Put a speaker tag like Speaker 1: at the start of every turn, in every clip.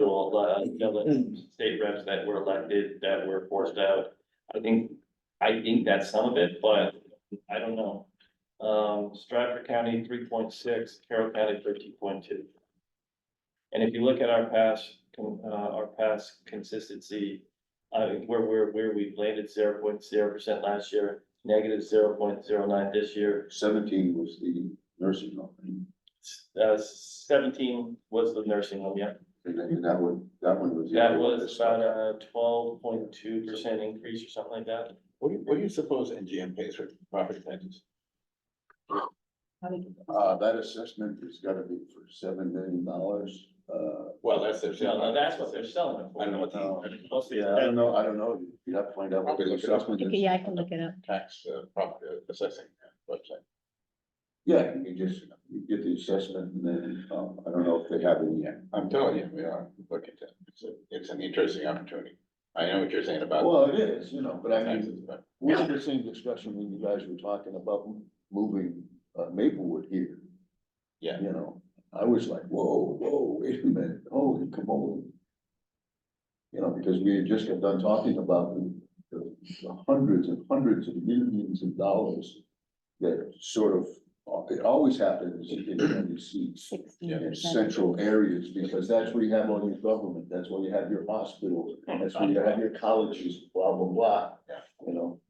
Speaker 1: until, uh, until the state reps that were elected, that were forced out. I think, I think that's some of it, but I don't know. Um, Stratford County, three point six, Carroll County, thirteen point two. And if you look at our past, con- uh, our past consistency, uh, where, where, where we've landed zero point zero percent last year, negative zero point zero nine this year.
Speaker 2: Seventeen was the nursing home,
Speaker 1: Uh, seventeen was the nursing home, yeah.
Speaker 2: and that- and that one, that one was. the
Speaker 1: That
Speaker 2: other one
Speaker 1: was about a twelve point two percent increase or something like that.
Speaker 3: What do you, what do you suppose NGM pays for property taxes?
Speaker 2: Uh, that assessment has gotta be for seven million dollars, uh.
Speaker 3: Well, that's their.
Speaker 1: No, no, that's what they're selling it for.
Speaker 3: I know what
Speaker 2: uh,
Speaker 3: the
Speaker 1: Mostly,
Speaker 2: Yeah, I don't know, I don't know, you'd have to find out what the assessment is.
Speaker 4: Yeah, I can look it up.
Speaker 3: tax, uh, property assessing uh, website.
Speaker 2: Yeah, you just, you get the assessment and then, um, I don't know if they have it yet.
Speaker 3: I'm telling you, we are looking at, it's, a- it's an interesting opportunity. I know what you're saying about
Speaker 2: Well, it is, you know, but I mean,
Speaker 3: taxes, but
Speaker 2: we had the same discussion when you guys were talking about moving uh, Maplewood here.
Speaker 3: Yeah.
Speaker 2: You know, I was like, whoa, whoa, wait a minute, holy on. You know, because we had just got done talking about the, the the hundreds and hundreds of millions of dollars that sort of, it always happens in, in these seats
Speaker 4: Sixteen
Speaker 2: in
Speaker 4: percent.
Speaker 2: central areas, because that's where you have all your government, that's where you have your hospitals, that's where you have your colleges, blah, blah, blah.
Speaker 3: Yeah.
Speaker 2: You know,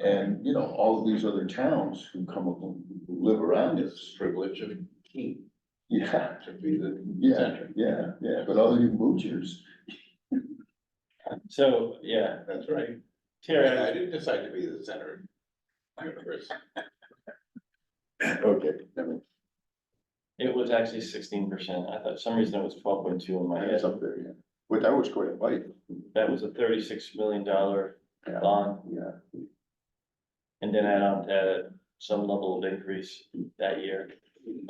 Speaker 2: and, you know, all of these other towns who come up, who live around
Speaker 3: it's
Speaker 2: us.
Speaker 3: privilege of key
Speaker 2: Yeah,
Speaker 3: to be the
Speaker 2: yeah,
Speaker 3: center.
Speaker 2: yeah, yeah, but all you moochers,
Speaker 1: so, yeah,
Speaker 3: That's right.
Speaker 1: Terry,
Speaker 3: I
Speaker 1: I-
Speaker 3: didn't decide to be the center of the universe.
Speaker 2: okay, never mind.
Speaker 1: it was actually sixteen percent. I thought, for some reason it was twelve point two in my head.
Speaker 2: it's up there, yeah. But that was quite a bite,
Speaker 1: That was a thirty-six million dollar
Speaker 2: Yeah.
Speaker 1: bond,
Speaker 2: yeah.
Speaker 1: and then add on to that some level of increase that year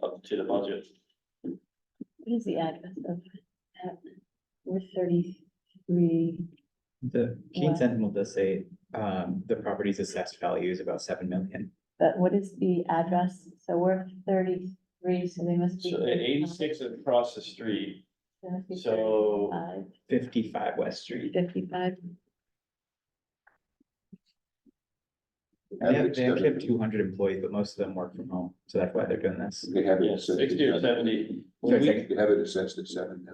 Speaker 1: up to the budget.
Speaker 4: What is the address of that? We're thirty-three.
Speaker 5: The Keene
Speaker 4: Wow.
Speaker 5: Sentinel does say, um, the property's assessed value is about seven million.
Speaker 4: But what is the address? So we're thirty-three, so they must be.
Speaker 1: So uh, eighty-six across the street,
Speaker 4: They must be
Speaker 1: so
Speaker 4: 35,
Speaker 5: Fifty-five West Street.
Speaker 4: Fifty-five.
Speaker 5: They have,
Speaker 2: Ethics
Speaker 5: they actually have
Speaker 2: doesn't-
Speaker 5: two hundred employees, but most of them work from home, so that's why they're doing this.
Speaker 2: They have it
Speaker 1: yeah,
Speaker 2: assessed.
Speaker 1: sixty or seventy.
Speaker 5: So
Speaker 1: When
Speaker 5: it's
Speaker 1: we-
Speaker 5: like-
Speaker 2: They have it assessed at seven.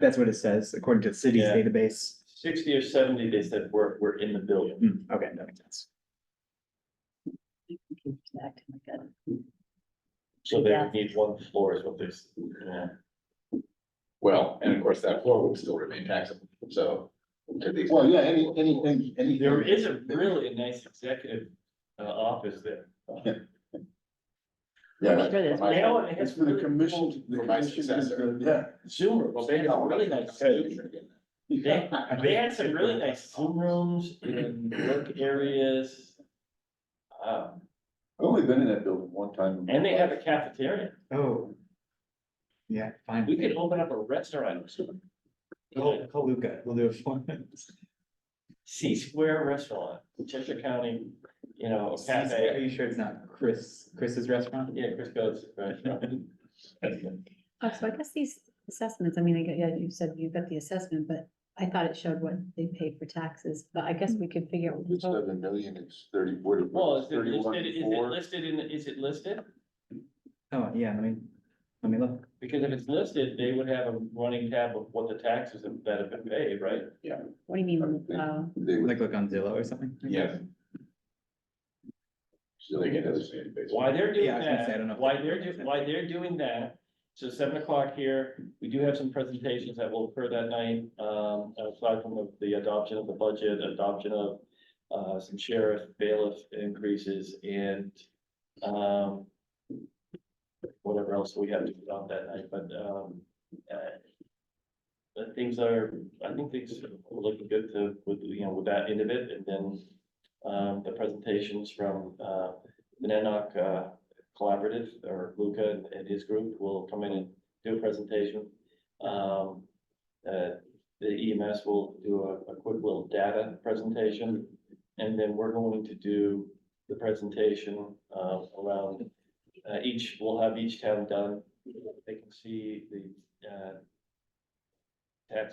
Speaker 5: That's what it says, according to the city's
Speaker 1: Yeah.
Speaker 5: database.
Speaker 1: Sixty or seventy, they said we're, we're in the billion.
Speaker 5: Hmm, okay, that makes sense.
Speaker 1: So they
Speaker 4: Yeah.
Speaker 1: would need one floor is what there's, yeah.
Speaker 3: Well, and of course, that floor would still remain taxable, so. to the extent-
Speaker 2: Well, yeah, any, anything, anything.
Speaker 1: There is a really a nice executive uh office there.
Speaker 2: Yeah.
Speaker 4: Sure there's
Speaker 3: My-
Speaker 4: many.
Speaker 1: know, and it has
Speaker 2: It's for the
Speaker 1: really cool
Speaker 2: commission, the
Speaker 3: For my
Speaker 2: commission is,
Speaker 3: successor.
Speaker 2: the- yeah.
Speaker 1: Zoom, well, they had a really nice, Zoom. they, they had some really nice Zoom rooms and work areas. Um,
Speaker 2: I've only been in that building one time.
Speaker 1: and they have a cafeteria.
Speaker 5: Oh. Yeah, fine.
Speaker 1: We could open up a restaurant.
Speaker 2: Oh.
Speaker 5: Call, call Luca, we'll do a form.
Speaker 1: C Square Restaurant, Cheshire County, you know, a
Speaker 5: Are
Speaker 1: cafe.
Speaker 5: you sure it's not Chris, Chris's restaurant?
Speaker 1: Yeah, Chris goes. restaurant.
Speaker 4: Oh, So I guess these assessments, I mean, I get, yeah, you said you got the assessment, but I thought it showed what they paid for taxes, but I guess we could figure. out.
Speaker 2: It's seven million, it's thirty, what?
Speaker 1: Well, is it
Speaker 2: Thirty-one,
Speaker 1: listed, is it
Speaker 2: four.
Speaker 1: listed in, is it listed?
Speaker 5: Oh, yeah, let me, let me look.
Speaker 1: Because if it's listed, they would have a running tab of what the taxes that have been paid, right?
Speaker 4: What do you mean? uh,
Speaker 2: They would,
Speaker 5: Like look on Zillow or something?
Speaker 3: Yes. So they get designated based.
Speaker 1: Why they're doing
Speaker 5: Yeah, I was gonna say, I don't
Speaker 1: that,
Speaker 5: know if
Speaker 1: why
Speaker 5: they-
Speaker 1: they're, do- why they're doing that, so seven o'clock here, we do have some presentations that will occur that night. Um, aside from the- the adoption of the budget, adoption of, uh, some sheriff bailiff increases and, um. Whatever else we have to adopt that night, but, um, uh. But things are, I think things are looking good to, with, you know, with that end of it, and then, um, the presentations from, uh, the Nanoc uh, Collaborative, or Luca and- and his group will come in and do a presentation. Um, uh, The EMS will do a, a quick little data presentation, and then we're going to do the presentation uh, around, uh, each, we'll have each town done. They can see the uh,